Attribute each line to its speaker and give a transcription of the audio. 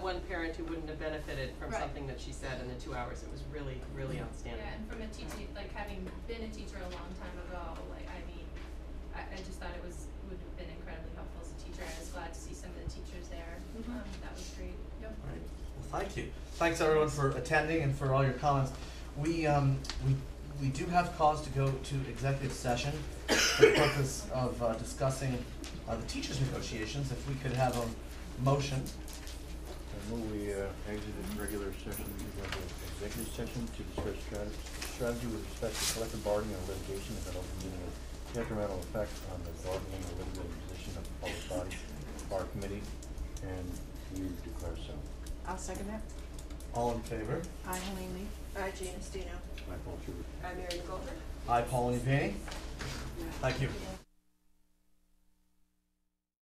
Speaker 1: parent who wouldn't have benefited from
Speaker 2: Right.
Speaker 1: something that she said in the two hours. It was really, really outstanding.
Speaker 2: Yeah, and from a teaching, like having been a teacher a long time ago, like, I mean, I, I just thought it was, would have been incredibly helpful as a teacher, I was glad to see some of the teachers there,
Speaker 3: Mhm.
Speaker 2: um, that was great. Yep.
Speaker 4: All right. Well, thank you. Thanks everyone for attending and for all your comments. We um we we do have cause to go to executive session for the purpose of uh, discussing uh, the teachers' negotiations. If we could have a motion,
Speaker 5: I move we uh, exited regular session, we go into executive session to discuss strat- strategy with respect to collective bargaining or litigation that will be a detrimental effect on the bargaining or litigating position of the public body, bar committee, and you declare so.
Speaker 3: I'll second that.
Speaker 4: all in favor?
Speaker 3: I, Helene Lee.
Speaker 6: Hi, Gina Stino.
Speaker 5: Michael, if you would-
Speaker 1: I'm Mary Goldberg.
Speaker 4: I, Pauline Payne. Thank you.